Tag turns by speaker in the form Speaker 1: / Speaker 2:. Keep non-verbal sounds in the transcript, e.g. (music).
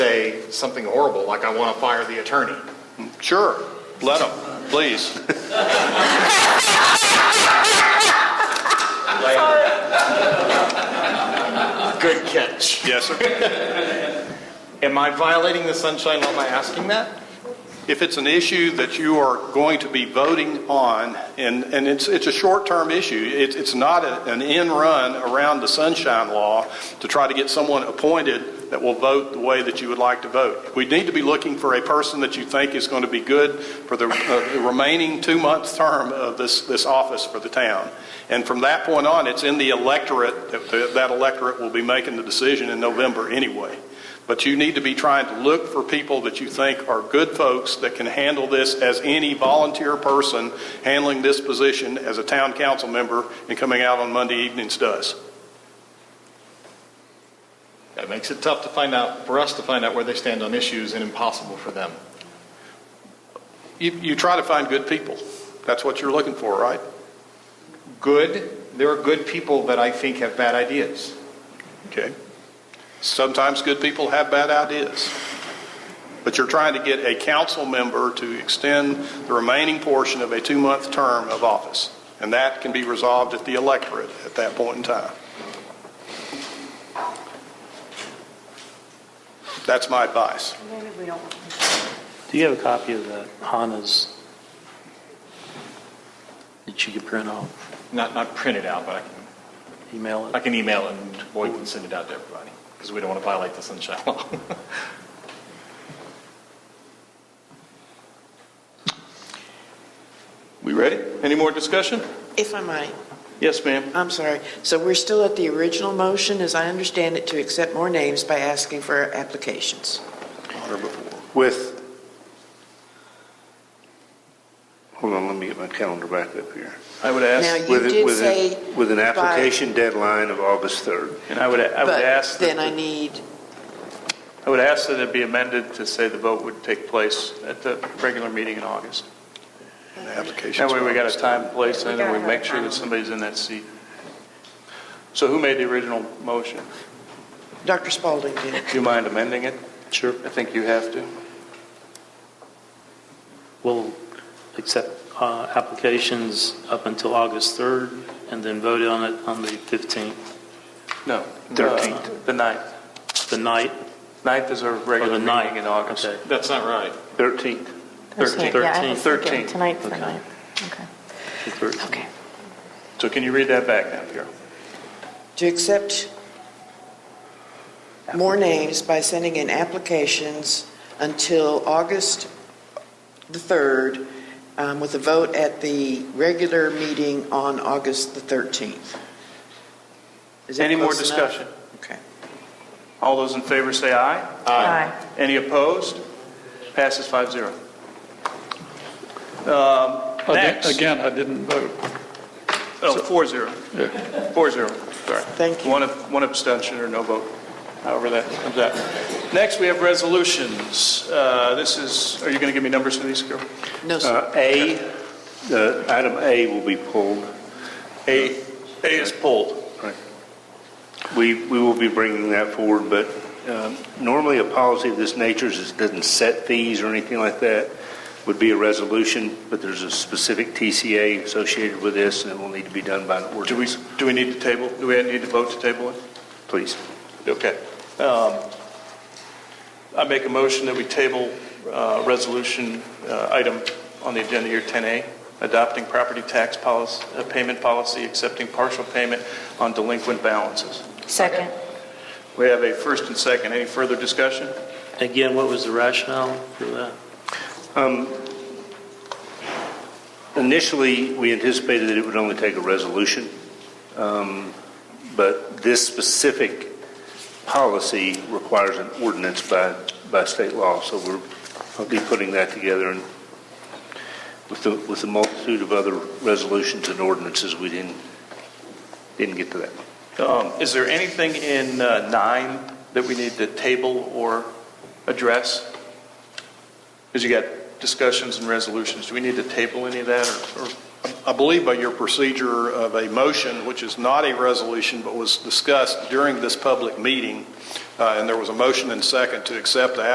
Speaker 1: it's something horrible, like I want to fire the attorney.
Speaker 2: Sure, let
Speaker 1: (laughs)
Speaker 2: them, please.
Speaker 1: Good catch.
Speaker 2: Yes, sir.
Speaker 1: Am I violating the sunshine law by asking that?
Speaker 2: If it's an issue that you are going to be voting on, and, and it's, it's a short-term issue, it, it's not a- an end run around the sunshine law to try to get someone appointed that will vote the way that you would like to vote. We need to be looking for a person that you think is going to be good for the uh, the remaining two-month term of this, this office for the town. And from that point on, it's in the electorate, that that electorate will be making the decision in November anyway. But you need to be trying to look for people that you think are good folks that can handle this as any volunteer person handling this position as a town council member and coming out on Monday evenings does.
Speaker 1: That makes it tough to find out, for us to find out where they stand on issues and impossible for them.
Speaker 2: You, you try to find good people. That's what you're looking for, right?
Speaker 1: Good, there are good people that I think have bad ideas.
Speaker 2: Okay. Sometimes good people have bad ideas. But you're trying to get a council member to extend the remaining portion of a two-month term of office. And that can be resolved at the electorate at that point in time. That's my advice.
Speaker 3: Maybe we don't.
Speaker 4: Do you have a copy of the HANA's that you could print off,
Speaker 1: Not, not print it out, but I can,
Speaker 4: email
Speaker 1: I
Speaker 4: it?
Speaker 1: can email it and Boyd can send it out to everybody, because we don't want to violate the sunshine law. (laughs)
Speaker 5: We ready? Any more discussion?
Speaker 3: If I might,
Speaker 5: Yes, ma'am.
Speaker 3: I'm sorry. So we're still at the original motion, as I understand it, to accept more names by asking for applications.
Speaker 6: with, hold on, let me get my calendar back up here.
Speaker 5: I would
Speaker 3: Now,
Speaker 5: ask,
Speaker 3: you
Speaker 6: With it-
Speaker 3: did
Speaker 6: with
Speaker 3: say,
Speaker 6: it- With an
Speaker 3: by-
Speaker 6: application deadline of August 3rd.
Speaker 5: and I would, I would
Speaker 3: but
Speaker 5: ask, that
Speaker 3: then I
Speaker 5: the-
Speaker 3: need,
Speaker 5: I would ask that it be amended to say the vote would take place at the regular meeting in August. That way we got a time, place, and then we make sure that somebody's in that seat. So who made the original motion?
Speaker 3: Dr. Spalding did.
Speaker 5: Do you mind amending it? Sure. I think you have to.
Speaker 4: We'll accept uh, applications up until August 3rd and then vote on it on the 15th,
Speaker 5: No. Uh,
Speaker 4: 13th.
Speaker 5: The ninth.
Speaker 4: the night
Speaker 5: Ninth is our
Speaker 4: or the
Speaker 5: regular
Speaker 4: night?
Speaker 5: meeting in August.
Speaker 4: Okay.
Speaker 1: That's not right.
Speaker 6: 13th.
Speaker 7: That's
Speaker 4: Thirteenth.
Speaker 7: it. Yeah, I was
Speaker 5: Thirteenth.
Speaker 7: thinking tonight's the
Speaker 4: Okay.
Speaker 7: night. Okay,
Speaker 4: the 13th.
Speaker 7: okay.
Speaker 5: So can you read that back now, Pierre?
Speaker 3: To accept more names by sending in applications until August the 3rd, um, with a vote at the regular meeting on August the 13th. Is that
Speaker 5: Any more
Speaker 3: close enough?
Speaker 5: discussion?
Speaker 3: Okay.
Speaker 5: All those in favor say aye.
Speaker 7: Aye.
Speaker 5: Any opposed? Passes 5-0. Um,
Speaker 8: Again-
Speaker 5: Next,
Speaker 8: Again, I didn't vote.
Speaker 5: oh, 4-0. 4-0, sorry.
Speaker 3: Thank you.
Speaker 5: One ab- one abstention or no vote, however that comes out. Next, we have resolutions. Uh, This is, are you going to give me numbers for these, Carol?
Speaker 3: No, sir.
Speaker 6: Uh, A, uh, item A will be pulled.
Speaker 5: A, A is pulled.
Speaker 6: We, we will be bringing that forward, but um, normally a policy of this nature is, doesn't set fees or anything like that, would be a resolution, but there's a specific TCA associated with this, and it will need to be done by an
Speaker 5: Do we,
Speaker 6: ordinance.
Speaker 5: do we need to table, do we need to vote to table it?
Speaker 6: Please.
Speaker 5: Okay. Um, I make a motion that we table uh, resolution uh, item on the agenda here, 10A, adopting property tax policy, uh, payment policy, accepting partial payment on delinquent balances.
Speaker 7: Second.
Speaker 5: We have a first and second. Any further discussion?
Speaker 4: Again, what was the rationale for that?
Speaker 6: Um, Initially, we anticipated that it would only take a resolution, um, but this specific policy requires an ordinance by, by state law, so we're, I'll be putting that together and with the, with the multitude of other resolutions and ordinances, we didn't, didn't get to that.
Speaker 5: Um, Is there anything in uh, 9 that we need to table or address? Because you got discussions and resolutions. Do we need to table any of that or- or
Speaker 2: I believe by your procedure of a motion, which is not a resolution, but was discussed during this public meeting, uh, and there was a motion and second to accept the